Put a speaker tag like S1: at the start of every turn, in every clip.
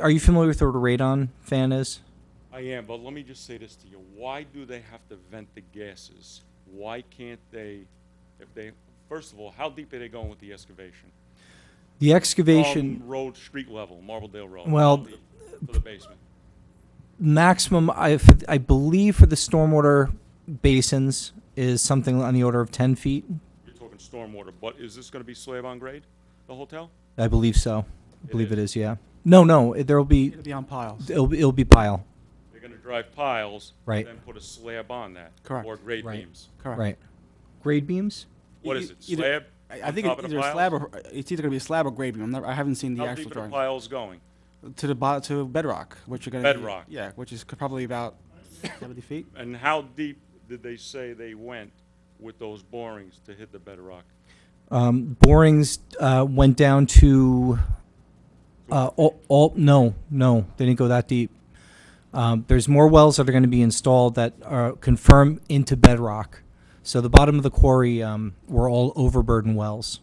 S1: Are you familiar with what a radon fan is?
S2: I am, but let me just say this to you. Why do they have to vent the gases? Why can't they, if they, first of all, how deep are they going with the excavation?
S1: The
S2: From
S1: excavation
S2: Road, street level, Marbledale Road.
S1: Well,
S2: how deep To the basement.
S1: maximum, I, I believe, for the stormwater basins is something on the order of 10 feet.
S2: You're talking stormwater, but is this gonna be slab on grade, the hotel?
S1: I believe so. I
S2: It
S1: believe it
S2: is.
S1: is, yeah. No, no, it- there'll be,
S3: It'll be on piles.
S1: it'll, be- it'll be pile,
S2: They're gonna drive piles.
S1: Right.
S2: And then put a slab on that.
S3: Correct.
S2: Or grade
S1: Right.
S2: beams.
S3: Correct.
S1: right. Grade beams?
S2: What
S3: E-
S2: is it,
S3: either-
S2: slab?
S3: I I
S2: on
S3: think
S2: top
S3: it's
S2: of the
S3: either a
S2: piles?
S3: slab or, it's either gonna be a slab or grade beam. I'm never, I haven't seen the
S2: How
S3: actual
S2: deep are the
S3: drawing.
S2: piles going?
S3: To the bot, to bedrock, which you're gonna. be-
S2: Bedrock.
S3: Yeah, which is c- probably about seventy feet.
S2: And how deep did they say they went with those borings to hit the bedrock?
S1: Um, borings uh, went down to uh, all, all. No, no, they didn't go that deep. Um, there's more wells that are going to be installed that are confirmed into bedrock. So the bottom of the quarry um, were all overburden wells.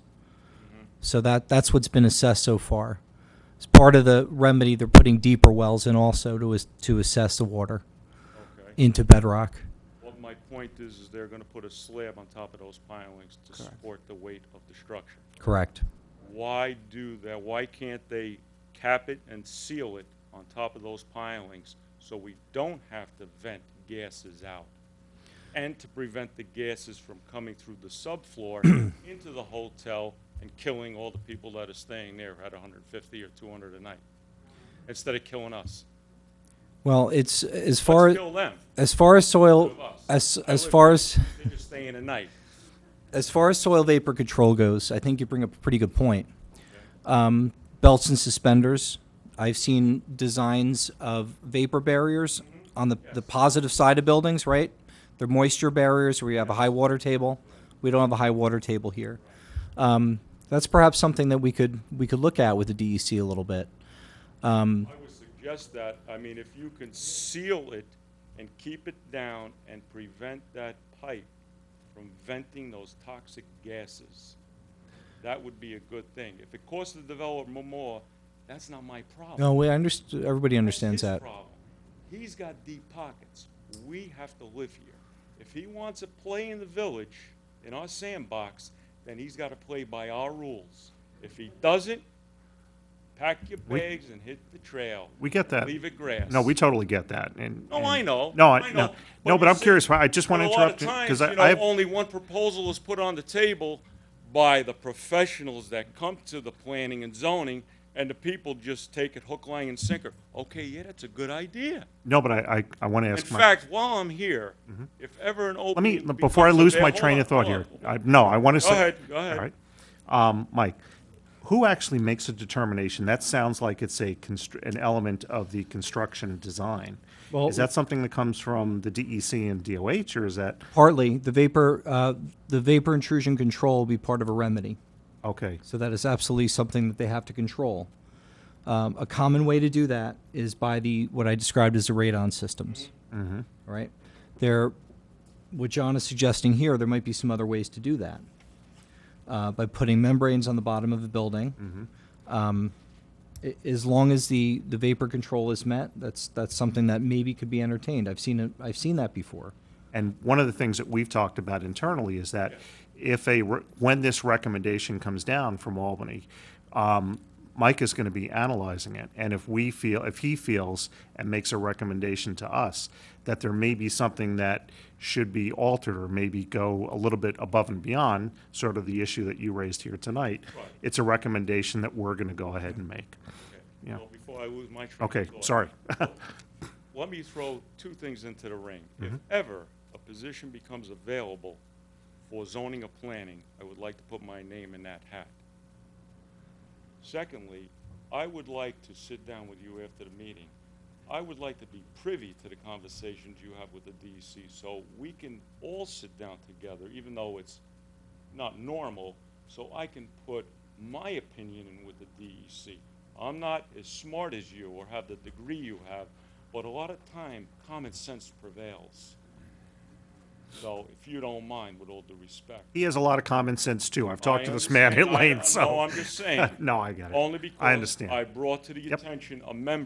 S2: Mm-hmm.
S1: So that that's what's been assessed so far. As part of the remedy, they're putting deeper wells in also to as, to assess the water
S2: Okay.
S1: into bedrock.
S2: Well, my point is, is they're gonna put a slab on top of those pilings to
S3: Correct.
S2: support the weight of the structure.
S1: Correct.
S2: Why do that? Why can't they cap it and seal it on top of those pilings so we don't have to vent gases out? And to prevent the gases from coming through the subfloor into the hotel and killing all the people that are staying there at 150 or 200 a night, instead of killing us.
S1: Well, it's as far
S2: Let's
S1: as
S2: kill them,
S1: as far as soil
S2: of us.
S1: as
S2: I
S1: as
S2: would-
S1: far as
S2: They're just staying a night.
S1: As far as soil vapor control goes, I think you bring up a pretty good point. Um, belts and suspenders. I've seen designs of vapor barriers on the, the positive side of buildings, right? They're moisture barriers where you have a high water table. We don't have a high water table here. Um, that's perhaps something that we could we could look at with the DEC a little bit. Um,
S2: I would suggest that, I mean, if you can seal it and keep it down and prevent that pipe from venting those toxic gases, that would be a good thing. If it costs the developer more, that's not my problem.
S1: no, we understand. Everybody
S2: That's
S1: understands
S2: his
S1: that.
S2: problem. He's got deep pockets. We have to live here. If he wants to play in the village, in our sandbox, then he's got to play by our rules. If he doesn't, pack your
S4: We-
S2: bags and hit the trail.
S4: We get that.
S2: Leave it grass.
S4: No, we totally get that. And
S2: No,
S4: and-
S2: I know.
S4: No, I,
S2: I know.
S4: no, no.
S2: But
S4: But
S2: you
S4: I'm
S2: see,
S4: curious. I just want to
S2: But a lot of
S4: interrupt you
S2: times,
S4: because
S2: you know,
S4: I have.
S2: only one proposal is put on the table by the professionals that come to the planning and zoning, and the people just take it hook, line, and sinker. Okay, yeah, that's a good idea.
S4: No, but I, I, I want to
S2: In
S4: ask my. Mm-hmm.
S2: fact, while I'm here, if ever an
S4: let me
S2: opening.
S4: before I
S2: becomes
S4: lose my
S2: available-
S4: train
S2: hold
S4: of
S2: on,
S4: thought here.
S2: hold on.
S4: I, no, I want
S2: Go
S4: to say.
S2: ahead, go ahead.
S4: All right, um, Mike. Who actually makes a determination? That sounds like it's a constr- an element of the construction design.
S1: Well-
S4: is that something that comes from the DEC and DOH, or is that
S1: Partly, the vapor uh, the vapor intrusion control will be part of a remedy.
S4: okay?
S1: So that is absolutely something that they have to control. Um, a common way to do that is by the what I described as the radon systems. Mm-hmm. Right? There, what John is suggesting here, there might be some other ways to do that uh, by putting membranes on the bottom of the building. Um, a- as long as the, the vapor control is met, that's that's something that maybe could be entertained. I've seen it. I've seen that before.
S4: And one of the things that we've talked about internally is that if a, re- when this recommendation comes down from Albany, um, Mike is going to be analyzing it. And if we feel, if he feels and makes a recommendation to us that there may be something that should be altered or maybe go a little bit above and beyond sort of the issue that you raised here tonight, it's a recommendation that we're going to go ahead and make.
S2: Okay.
S4: Yeah.
S2: Well, Before I lose my train of
S4: Okay,
S2: thought.
S4: sorry.
S2: let me throw two things into the ring.
S4: Mm-hmm.
S2: If ever a position becomes available for zoning or planning, I would like to put my name in that hat. Secondly, I would like to sit down with you after the meeting. I would like to be privy to the conversations you have with the DEC, so we can all sit down together, even though it's not normal, so I can put my opinion in with the DEC. I'm not as smart as you or have the degree you have, but a lot of time, common sense prevails. So if you don't mind, with all due respect.
S4: He has a lot of common sense too. I've talked
S2: I
S4: to this man at
S2: understand. I-
S4: Lane, so.
S2: No, I'm just saying.
S4: No, I get it.
S2: Only because
S4: I understand.
S2: I brought to the
S4: Yep.
S2: attention a member